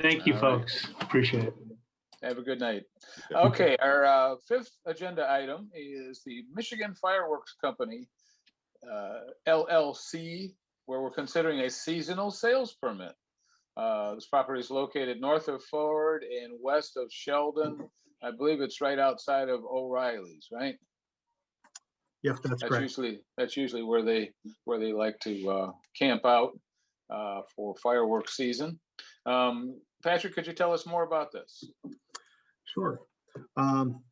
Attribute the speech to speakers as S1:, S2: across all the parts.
S1: Thank you,
S2: All right.
S1: folks. Appreciate it.
S2: Have a good night. Okay, our uh, fifth agenda item is the Michigan Fireworks Company uh, LLC, where we're considering a seasonal sales permit. Uh, This property is located north of Ford and west of Sheldon. I believe it's right outside of O'Reilly's, right?
S3: Yes,
S2: That's
S3: that's correct.
S2: usually, that's usually where they, where they like to uh, camp out uh, for fireworks season. Um, Patrick, could you tell us more about this?
S3: Sure. Um,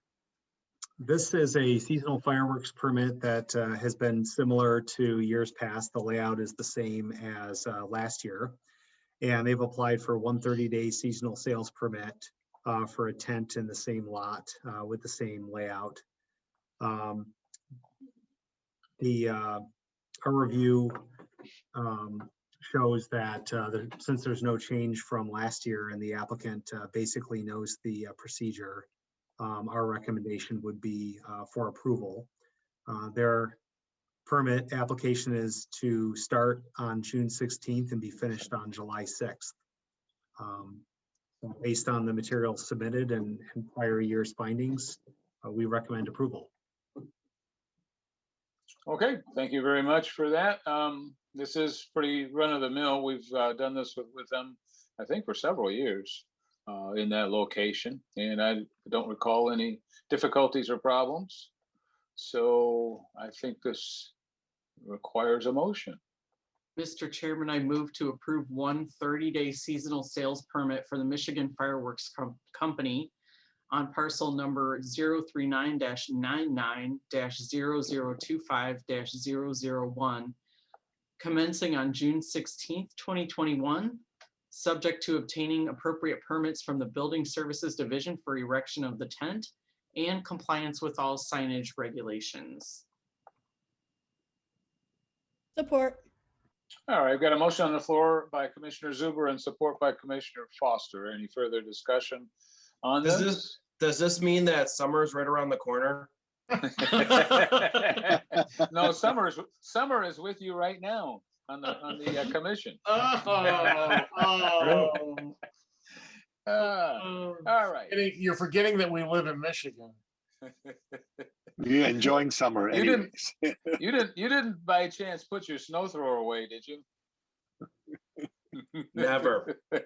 S3: This is a seasonal fireworks permit that uh, has been similar to years past. The layout is the same as uh, last year. And they've applied for one 30-day seasonal sales permit uh, for a tent in the same lot uh, with the same layout. Um, The, uh, our review um, shows that uh, there- since there's no change from last year and the applicant uh, basically knows the uh, procedure, um, our recommendation would be uh, for approval. Uh, Their permit application is to start on June 16th and be finished on July 6th. Um, so Based on the materials submitted and and prior year's findings, uh, we recommend approval.
S2: Okay, thank you very much for that. Um, this is pretty run of the mill. We've uh, done this with, with them, I think, for several years uh, in that location, and I don't recall any difficulties or problems. So I think this requires a motion.
S4: Mr. Chairman, I move to approve one 30-day seasonal sales permit for the Michigan Fireworks Com- Company on parcel number 039-99-0025-001, commencing on June 16th, 2021, subject to obtaining appropriate permits from the Building Services Division for erection of the tent and compliance with all signage regulations.
S5: Support.
S2: All right, I've got a motion on the floor by Commissioner Zuber and support by Commissioner Foster. Any further discussion on
S6: Does
S2: this?
S6: Does this mean that summer is right around the corner?
S2: No, summer is, summer is with you right now on the, on the uh, commission.
S7: Oh, oh,
S2: Ah,
S4: Oh.
S2: All right.
S7: Forgetting- You're forgetting that we live in Michigan.
S8: You're enjoying summer
S2: You didn't-
S8: anyways.
S2: You didn't, you didn't by chance put your snow thrower away, did you?
S6: Never.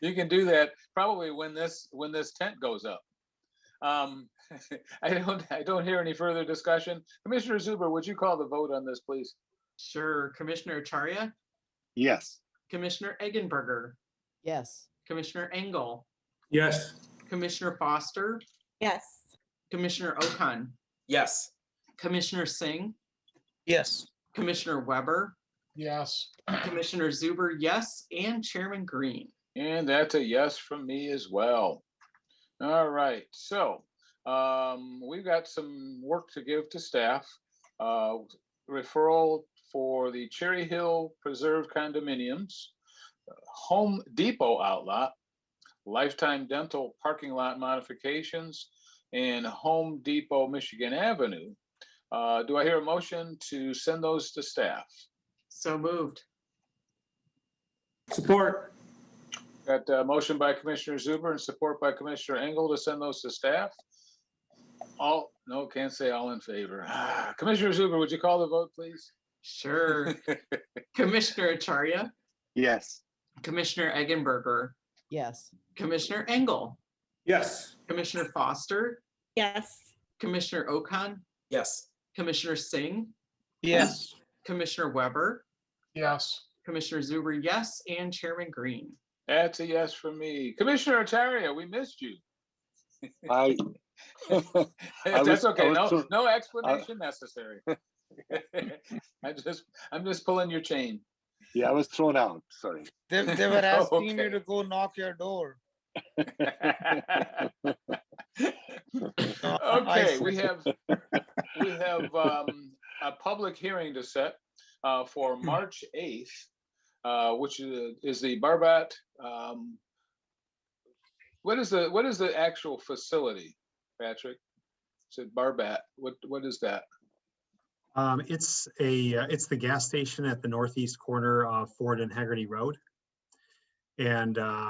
S2: You can do that probably when this, when this tent goes up. Um, I don't, I don't hear any further discussion. Commissioner Zuber, would you call the vote on this, please?
S4: Sure. Commissioner Acharya,
S8: Yes,
S4: Commissioner Eggenberger,
S5: Yes.
S4: Commissioner Engel,
S1: Yes.
S4: Commissioner Foster,
S5: Yes.
S4: Commissioner Okan,
S6: Yes.
S4: Commissioner Singh,
S6: Yes.
S4: Commissioner Weber,
S7: Yes,
S4: Commissioner Zuber, yes, and Chairman Green.
S2: And that's a yes from me as well. All right, so um, we've got some work to give to staff. Uh, Referral for the Cherry Hill Preserve condominiums, Home Depot outlot, Lifetime Dental parking lot modifications, and Home Depot Michigan Avenue. Uh, Do I hear a motion to send those to staff?
S4: So moved.
S1: Support.
S2: Got a motion by Commissioner Zuber and support by Commissioner Engel to send those to staff. All, no, can't say all in favor. Ah, Commissioner Zuber, would you call the vote, please?
S4: Sure. Commissioner Acharya,
S8: yes.
S4: Commissioner Eggenberger,
S5: Yes.
S4: Commissioner Engel,
S1: Yes.
S4: Commissioner Foster,
S5: Yes.
S4: Commissioner Okan,
S6: Yes.
S4: Commissioner Singh,
S6: Yes.
S4: Commissioner Weber,
S7: yes.
S4: Commissioner Zuber, yes, and Chairman Green.
S2: That's a yes from me. Commissioner Ataria, we missed you.
S8: I, I was-
S2: That's okay.
S8: I was
S2: No,
S8: so-
S2: no explanation necessary. I just, I'm just pulling your chain.
S8: yeah, I was thrown out, sorry.
S9: They, they were asking
S2: Okay.
S9: you to go knock your door.
S2: Okay, we have, we have um, a public hearing to set uh, for March 8th, uh, which is is the Barbat. um, What is the, what is the actual facility, Patrick? It's at Barbat. What, what is that?
S3: Um, It's a, uh, it's the gas station at the northeast corner of Ford and Hagerty Road. And uh,